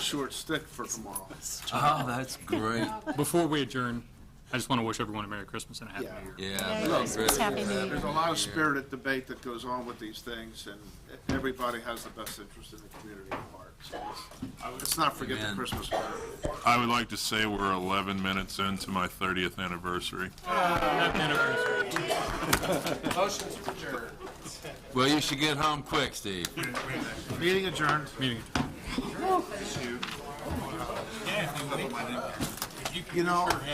short stick for tomorrow. Oh, that's great. Before we adjourn, I just want to wish everyone a Merry Christmas and a Happy Yeah. New Year. Yeah. Look, that's great. Happy New Year. There's a lot of spirited debate that goes on with these things, and everybody has the best interest in the community at heart. So let's- Let's not forget the Amen. Christmas spirit. I would like to say we're 11 minutes into my 30th anniversary. Happy anniversary. Well, you should get home quick, Steve. Meeting adjourned. Meeting adjourned. You know,